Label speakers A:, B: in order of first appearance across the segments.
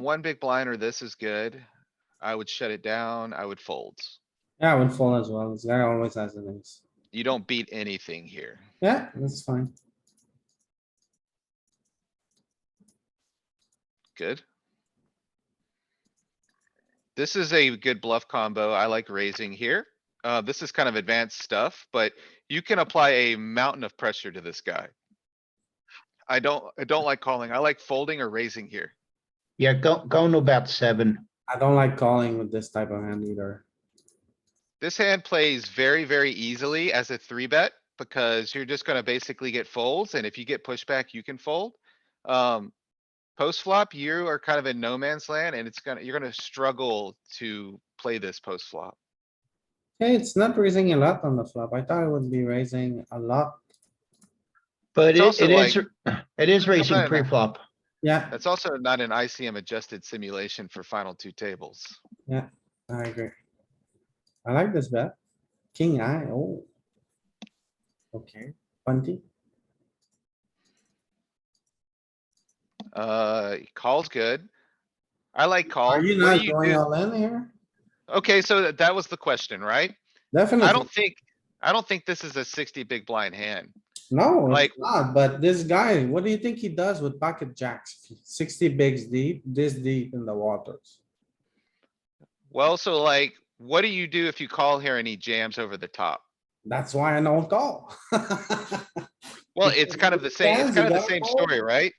A: One big blind or this is good. I would shut it down. I would fold.
B: Yeah, I would fold as well. This guy always has an ace.
A: You don't beat anything here.
B: Yeah, that's fine.
A: Good. This is a good bluff combo. I like raising here. Uh, this is kind of advanced stuff, but you can apply a mountain of pressure to this guy. I don't, I don't like calling. I like folding or raising here.
C: Yeah, go, going to about seven.
B: I don't like calling with this type of hand either.
A: This hand plays very, very easily as a three bet because you're just gonna basically get folds and if you get pushback, you can fold. Um, post flop, you are kind of in no man's land and it's gonna, you're gonna struggle to play this post flop.
B: Hey, it's not raising a lot on the flop. I thought it would be raising a lot.
C: But
A: It's
C: it, it is,
A: also
C: it is raising
A: Sometimes-
C: pre-flop.
B: Yeah,
A: That's also not an ICM adjusted simulation for final two tables.
B: I agree. I like this bet. King eye, oh. Okay, Bunty.
A: Uh, call's good. I like call.
B: Are you
A: What
B: not
A: do you
B: going
A: do-
B: all in here?
A: Okay, so that- that was the question, right? I
B: Definitely,
A: don't think, I don't think this is a sixty big blind hand.
B: no,
A: like-
B: like, not, but this guy, what do you think he does with pocket jacks? Sixty bigs deep, this deep in the waters.
A: Well, so like, what do you do if you call here and he jams over the top?
B: That's why I don't call.
A: Well,
B: Because
A: it's kind of the
B: it
A: same, it's
B: stands, you
A: kind of the
B: gotta
A: same
B: fold.
A: story, right?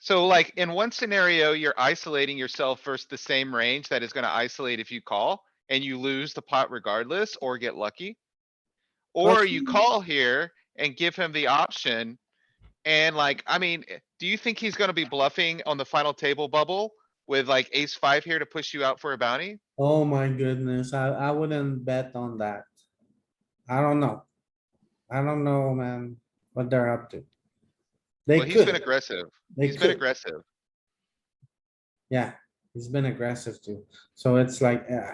A: So like, in one scenario, you're isolating yourself versus the same range that is gonna isolate if you call and you lose the pot regardless or get lucky. Or you
B: see-
A: call here and give him the option. And like, I mean, eh, do you think he's gonna be bluffing on the final table bubble with like ace five here to push you out for a bounty?
B: Oh my goodness, I, I wouldn't bet on that. I don't know. I don't know, man, what they're up to. They
A: Well, he's been
B: could,
A: aggressive.
B: they
A: He's been
B: could,
A: aggressive.
B: yeah, he's been aggressive too, so it's like, ah.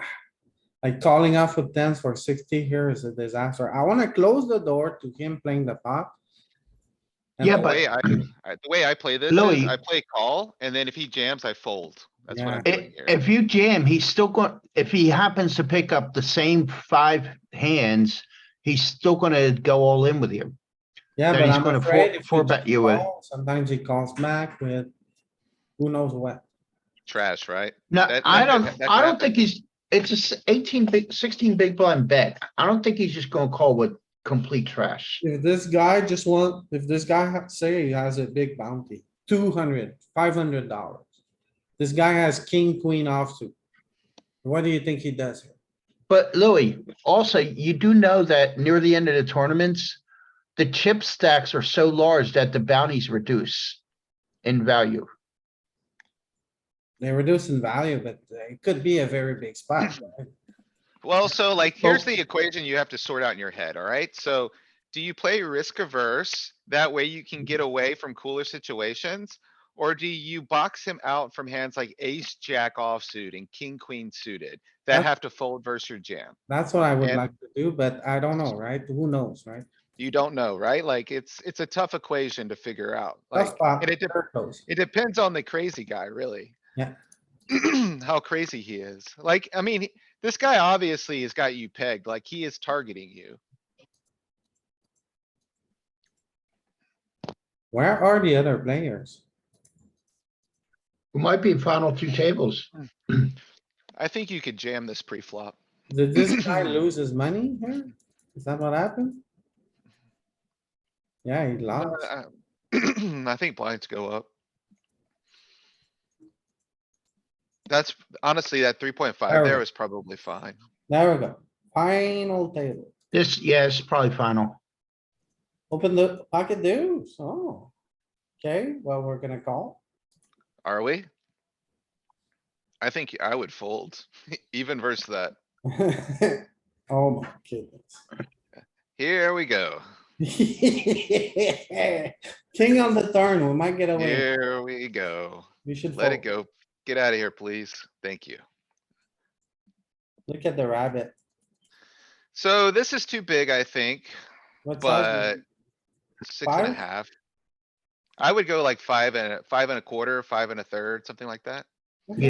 B: Like calling off with tens for sixty here is a disaster. I wanna close the door to him playing the pot. And
C: Yeah,
A: The
C: but-
A: way I, I- the way I play this is
C: Louis.
A: I play call and then if he jams, I fold. That's what I'm
C: I-
A: doing here.
C: If you jam, he's still going, if he happens to pick up the same five hands, he's still gonna go all in with you.
B: Yeah,
C: Then
B: but
C: he's
B: I'm
C: gonna four-
B: afraid if
C: four
B: we
C: bet
B: just
C: you with-
B: call, Sometimes he calls back with, who knows what.
A: Trash, right?
C: No,
A: That-
C: I
A: that could-
C: don't,
A: that could
C: I
A: happen.
C: don't think he's, it's a s- eighteen big, sixteen big blind bet. I don't think he's just gonna call with complete trash.
B: If this guy just want, if this guy ha- say he has a big bounty, two hundred, five hundred dollars. This guy has king, queen offsuit. What do you think he does here?
C: But Louis, also, you do know that near the end of the tournaments, the chip stacks are so large that the bounties reduce in value.
B: They reduce in value, but it could be a very big spot. right?
A: Well, so like, here's
B: Well-
A: the equation you have to sort out in your head, alright? So do you play risk averse? That way you can get away from cooler situations? Or do you box him out from hands like ace, jack offsuit and king, queen suited that
B: That's-
A: have to fold versus your jam?
B: That's what I would
A: And-
B: like to do, but I don't know, right? Who knows, right?
A: You don't know, right? Like, it's, it's a tough equation to figure out.
B: Tough
A: Like,
B: spot,
A: and it dep-
B: very close.
A: It depends on the crazy guy, really.
B: Yeah.
A: How crazy he is. Like, I mean, he- this guy obviously has got you pegged, like he is targeting you.
B: Where are the other players?
C: It might be final two tables.
A: I think you could jam this pre-flop.
B: Did this guy lose his money here? Is that what happened? Yeah, he
A: Uh,
B: lost.
A: I think blinds go up. That's honestly, that three point five there
B: Terrible.
A: was probably fine.
B: There we go. Final table.
C: This, yeah, it's probably final.
B: Open the pocket deuce. Oh. Okay, well, we're gonna call.
A: Are we? I think I would fold even versus that.
B: Oh my goodness.
A: Here we go.
B: King on the turn, we might get away.
A: Here we go.
B: We should.
A: Let it
B: fold.
A: go. Get out of here, please. Thank you.
B: Look at the rabbit.
A: So this is too big, I think.
B: What size is
A: But- Six and a
B: Five?
A: half. I would go like five and, a- five and a quarter, five and a third, something like that.